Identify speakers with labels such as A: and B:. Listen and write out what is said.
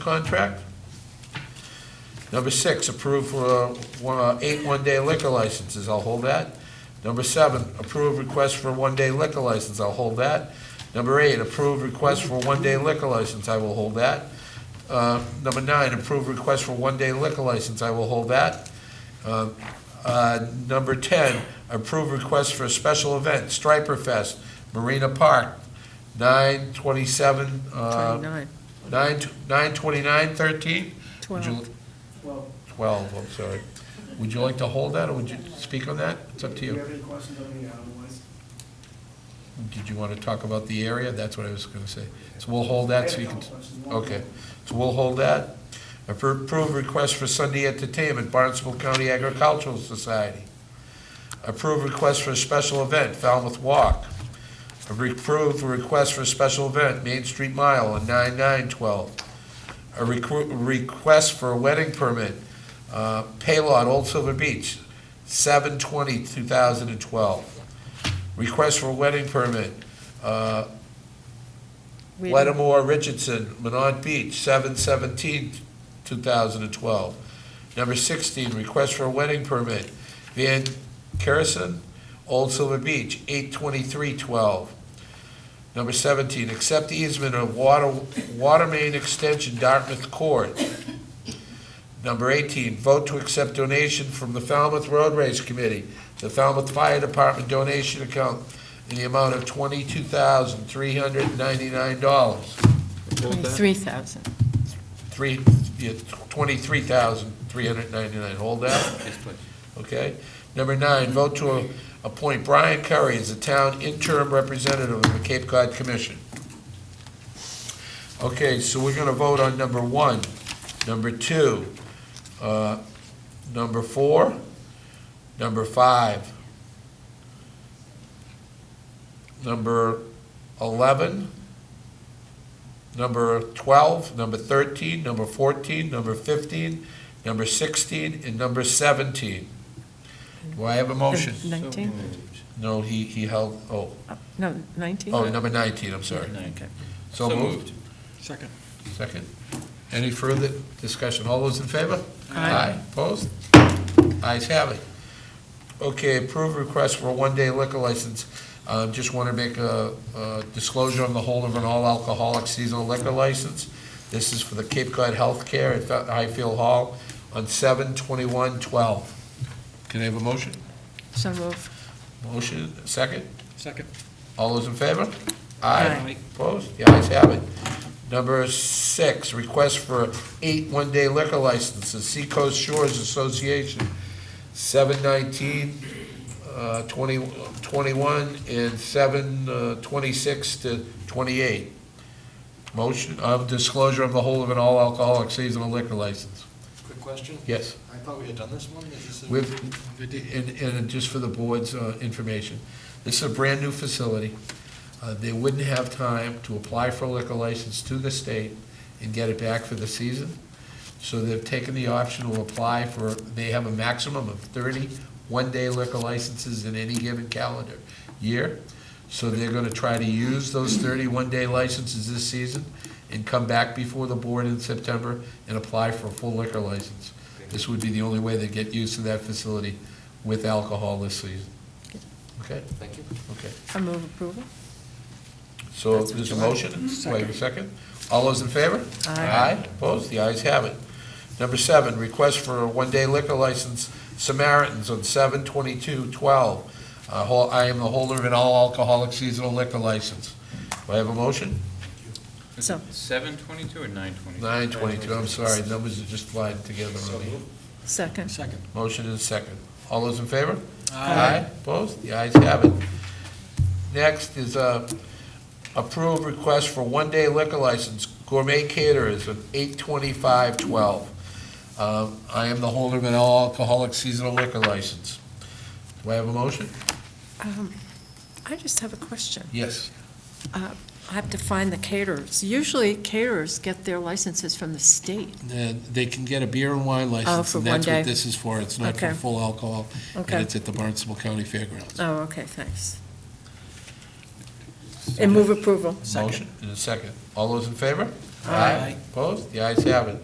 A: contract. Number six, approve uh, one- uh, eight one-day liquor licenses, I'll hold that. Number seven, approve request for one-day liquor license, I'll hold that. Number eight, approve request for one-day liquor license, I will hold that. Uh, Number nine, approve request for one-day liquor license, I will hold that. Uh, uh, Number 10, approve request for a special event, Striper Fest, Marina Park, 9/27, uh,
B: 29,
A: 9, 929, 13?
B: 12.
A: 12, I'm sorry. Would you like to hold that, or would you speak on that? It's up to
C: Do you
A: you.
C: have any questions on the otherwise?
A: Did you want to talk about the area? That's what I was going to say. So we'll hold that so you can, okay. So we'll hold that. Appro- Approve request for Sunday entertainment, Barnstable County Agricultural Society. Approve request for a special event, Falmouth Walk. Approve request for a special event, Main Street Mile on 9912. A recru- request for a wedding permit, uh, Paylot, Old Silver Beach, 7/20/2012. Request for a wedding permit, uh,
B: We didn't-
A: Lattimore Richardson, Minot Beach, 7/17/2012. Number 16, request for a wedding permit, Van Kerrison, Old Silver Beach, 8/23/12. Number 17, accept easement of water, water main extension Dartmouth Court. Number 18, vote to accept donation from the Falmouth Road Race Committee, the Falmouth Fire Department donation account in the amount of twenty-two thousand, three hundred and ninety-nine dollars.
B: 23,000.
A: Three, yeah, twenty-three thousand, three hundred and ninety-nine, hold that,
D: Yes, please.
A: okay? Number nine, vote to a- appoint Brian Curry as the town interim representative of the Cape Cod Commission. Okay, so we're gonna vote on number one, number two, uh, number four, number five, number eleven, number 12, number 13, number 14, number 15, number 16, and number 17. Do I have a motion?
B: 19?
A: No, he, he held, oh,
B: Uh, No, 19?
A: oh, number 19, I'm sorry.
D: Okay.
A: So moved.
C: Second.
A: Second. Any further discussion? All those in favor?
B: Aye.
A: Opposed? Ayes have it. Okay, approved request for a one-day liquor license. Uh, Just want to make a a disclosure on the hold of an all-alcoholic seasonal liquor license. This is for the Cape Cod Healthcare at Fe- Highfield Hall on 7/21/12. Can I have a motion?
B: So moved.
A: Motion, second?
C: Second.
A: All those in favor?
B: Aye.
A: Opposed? The ayes have it. Number six, request for eight one-day liquor licenses, Seacoast Shores Association, 719, uh, 20 21, and 7, uh, 26 to 28. Motion of disclosure of the whole of an all-alcoholic seasonal liquor license.
E: Quick question.
A: Yes.
E: I thought we had done this one. Is this a-
A: With, and, and just for the board's uh, information, this is a brand-new facility. Uh, They wouldn't have time to apply for a liquor license to the state and get it back for the season. So they've taken the option to apply for, they have a maximum of 30 one-day liquor licenses in any given calendar year. So they're gonna try to use those 30 one-day licenses this season and come back before the board in September and apply for a full liquor license. This would be the only way they get used to that facility with alcohol this season. Okay,
E: Thank you.
A: okay.
B: I move approval.
A: So there's a motion, wait a second. All those in favor?
B: Aye.
A: opposed, the ayes have it. Number seven, request for a one-day liquor license, Samaritans on seven twenty-two twelve. Uh, I am the holder of an all-alcoholic seasonal liquor license. Do I have a motion?
B: So-
D: Seven twenty-two or nine twenty-two?
A: Nine twenty-two, I'm sorry, numbers are just flying together on me.
B: Second.
C: Second.
A: Motion is second. All those in favor?
B: Aye.
A: Opposed? The ayes have it. Next is uh, approve request for one-day liquor license, gourmet caterers of 8/25/12. Um, I am the holder of an all-alcoholic seasonal liquor license. Do I have a motion?
B: Um, I just have a question.
A: Yes.
B: Uh, I have to find the caterers. Usually caterers get their licenses from the state.
A: They can get a beer and wine
B: license, Oh, for and that's one what day?
A: is for. It's
B: not for Okay.
A: full alcohol,
B: Okay.
A: Oh, at the Barnstable County Fairgrounds.
B: Oh, okay, thanks. And move approval.
C: Second.
A: Motion and a second. All those in favor?
C: Aye.
A: Opposed? The ayes have it.